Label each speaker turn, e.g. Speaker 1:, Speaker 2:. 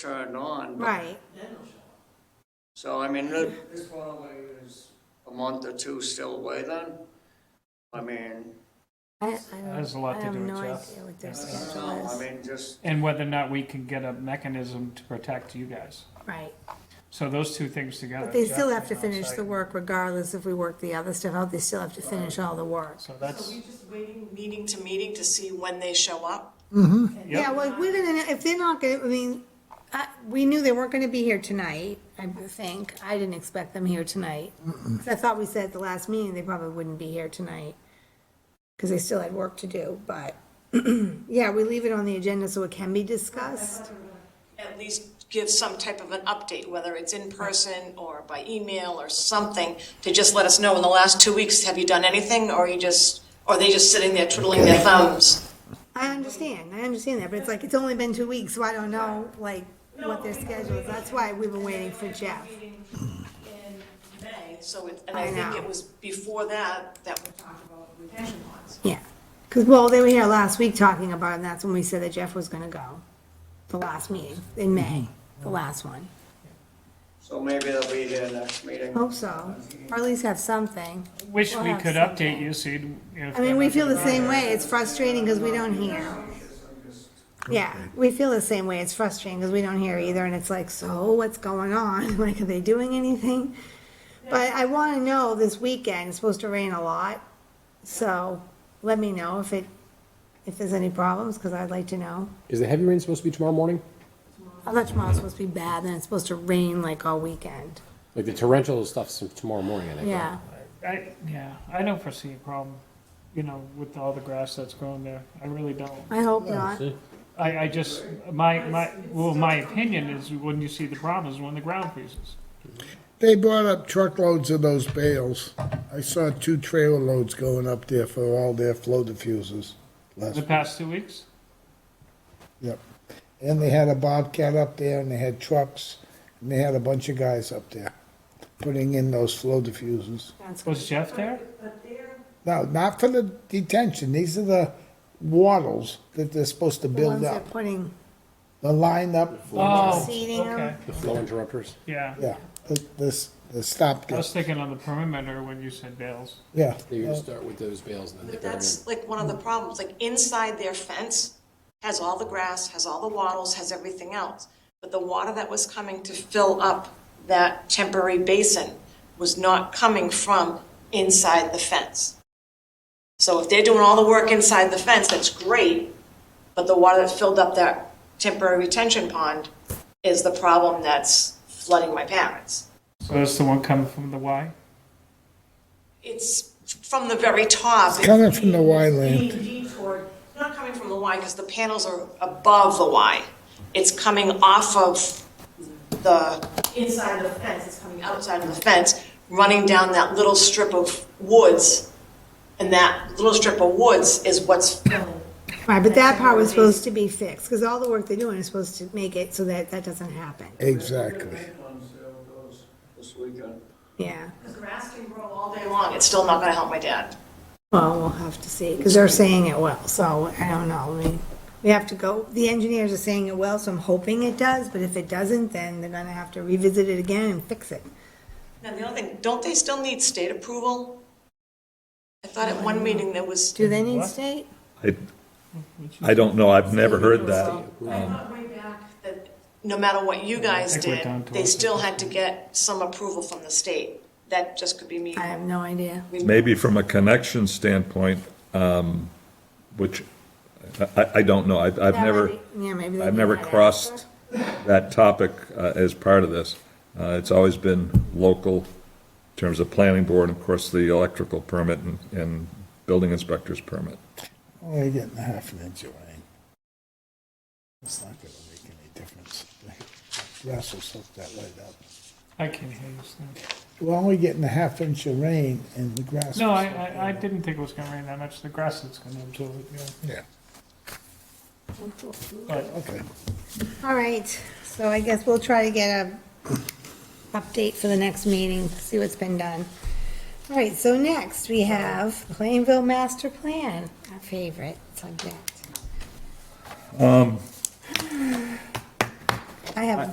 Speaker 1: turned on. but-
Speaker 2: Right,
Speaker 1: So, I mean, this this probably is a month or two still away then. I mean,
Speaker 2: I, I don't.
Speaker 3: Has a lot
Speaker 2: I
Speaker 3: to
Speaker 2: have
Speaker 3: do with
Speaker 2: no
Speaker 3: Jeff.
Speaker 2: idea what their
Speaker 3: Yeah.
Speaker 1: I don't know,
Speaker 2: schedule
Speaker 1: I
Speaker 2: is.
Speaker 1: mean, just,
Speaker 3: And whether or not we can get a mechanism to protect you guys.
Speaker 2: Right,
Speaker 3: So those two things together.
Speaker 2: but they
Speaker 3: uh, Jeff
Speaker 2: still have
Speaker 3: is
Speaker 2: to
Speaker 3: on
Speaker 2: finish
Speaker 3: site.
Speaker 2: the work regardless if we work the other stuff out, they still have to finish all the work.
Speaker 3: So
Speaker 4: So
Speaker 3: that's,
Speaker 4: we just waiting, meeting to meeting to see when they show up?
Speaker 2: Yeah, well, we're gonna, if they're not gonna, I mean, I, we knew they weren't gonna be here tonight, I think, I didn't expect them here tonight. 'Cause I thought we said at the last meeting, they probably wouldn't be here tonight, cause they still had work to do, but, yeah, we leave it on the agenda so it can be discussed.
Speaker 4: At least give some type of an update, whether it's in person or by email or something, to just let us know in the last two weeks, have you done anything? Or you just, or are they just sitting there twiddling their thumbs?
Speaker 2: I understand, I understand that, but it's like, it's only been two weeks, so I don't know, like, what their schedule is, that's why we've been waiting for Jeff.
Speaker 4: in May, so it, and
Speaker 2: I
Speaker 4: I
Speaker 2: know.
Speaker 4: think it was before that, that we talked about retention bonds.
Speaker 2: Yeah, because, well, they were here last week talking about it, and that's when we said that Jeff was gonna go, the last meeting, in May, the last one.
Speaker 1: so maybe they'll be here next meeting.
Speaker 2: Hope so, or at least have something.
Speaker 3: wish
Speaker 2: We'll
Speaker 3: we
Speaker 2: have
Speaker 3: could
Speaker 2: something.
Speaker 3: update you, so you'd. if
Speaker 2: I mean, we
Speaker 3: they're
Speaker 2: feel
Speaker 3: not-
Speaker 2: the same way, it's frustrating because we don't hear. Yeah, we feel the same way, it's frustrating because we don't hear either, and it's like, so what's going on? Like, are they doing anything? But I want to know this weekend, it's supposed to rain a lot, so let me know if it, if there's any problems, because I'd like to know.
Speaker 5: Is the heavy rain supposed to be tomorrow morning?
Speaker 2: I thought tomorrow's supposed to be bad, then it's supposed to rain like all weekend.
Speaker 5: Like the torrential stuff's tomorrow morning, I think. right?
Speaker 2: Yeah,
Speaker 3: I, yeah, I don't foresee a problem, you know, with all the grass that's growing there. I really don't.
Speaker 2: I hope not.
Speaker 3: I, I just, my, my, well, my opinion is when you see the problem is when the ground freezes.
Speaker 6: They brought up truckloads of those bales. I saw two trailer loads going up there for all their flow diffusers last
Speaker 3: The past two weeks,
Speaker 6: Yep. And they had a Bobcat up there, and they had trucks, and they had a bunch of guys up there putting in those flow diffusers.
Speaker 2: That's good.
Speaker 3: was Jeff there?
Speaker 6: No, not for the detention. These are the wattles that they're supposed to
Speaker 2: The ones
Speaker 6: build
Speaker 2: that
Speaker 6: up.
Speaker 2: putting,
Speaker 6: The line up,
Speaker 3: Oh,
Speaker 2: Seeding 'em.
Speaker 3: okay,
Speaker 5: The flow interrupters.
Speaker 3: yeah.
Speaker 6: yeah, the, the, the stop.
Speaker 3: I was thinking on the perimeter when you said bales.
Speaker 6: Yeah.
Speaker 5: They're gonna start with those bales and then they
Speaker 4: But
Speaker 5: burn them.
Speaker 4: that's like one of the problems, like inside their fence has all the grass, has all the wattles, has everything else. But the water that was coming to fill up that temporary basin was not coming from inside the fence. So if they're doing all the work inside the fence, that's great, but the water that filled up that temporary retention pond is the problem that's flooding my parents.
Speaker 3: So that's the one coming from the Y?
Speaker 4: It's from the very top. It's
Speaker 6: Coming from the Y lane.
Speaker 4: being detoured, not coming from the Y, because the panels are above the Y. It's coming off of the inside of the fence, it's coming outside of the fence, running down that little strip of woods. And that little strip of woods is what's filling.
Speaker 2: right, but that part was supposed to be fixed, because all the work they're doing is supposed to make it so that that doesn't happen.
Speaker 6: Exactly.
Speaker 1: On sale goes This weekend.
Speaker 2: Yeah,
Speaker 4: Because grass can grow all day long, it's still not gonna help my dad.
Speaker 2: well, we'll have to see, because they're saying it will, so I don't know, I mean, we have to go, the engineers are saying it will, so I'm hoping it does, but if it doesn't, then they're gonna have to revisit it again and fix it.
Speaker 4: Now, the other thing, don't they still need state approval? I thought at one meeting there was.
Speaker 2: Do they need state?
Speaker 7: I, I don't know, I've never heard that. Um,
Speaker 4: I thought way back that no matter what you guys
Speaker 3: Um, think we're
Speaker 4: did,
Speaker 3: down to
Speaker 4: they
Speaker 3: us.
Speaker 4: still had to get some approval from the state. That just could be me.
Speaker 2: I have no idea.
Speaker 7: Maybe from a connection standpoint, um, which, I- I, I don't know, I've, I've
Speaker 2: That
Speaker 7: never,
Speaker 2: might be- yeah, maybe they
Speaker 7: I've
Speaker 2: need
Speaker 7: never
Speaker 2: that extra.
Speaker 7: crossed that topic uh, as part of this. Uh, It's always been local, in terms of planning board, and of course, the electrical permit and, and building inspector's permit.
Speaker 6: Only getting a half an inch of rain. It's not gonna make any difference. Grass will soak that light up.
Speaker 3: I can't hear you, Stan.
Speaker 6: We're only getting a half inch of rain and the grass.
Speaker 3: No,
Speaker 6: will
Speaker 3: I,
Speaker 6: soak that
Speaker 3: I, I
Speaker 6: up.
Speaker 3: didn't think it was gonna rain that much, the grass is gonna absorb it, yeah.
Speaker 6: Yeah,
Speaker 3: But
Speaker 6: okay.
Speaker 2: All right, so I guess we'll try to get a update for the next meeting, see what's been done. All right, so next we have Plainville Master Plan, our favorite subject. I have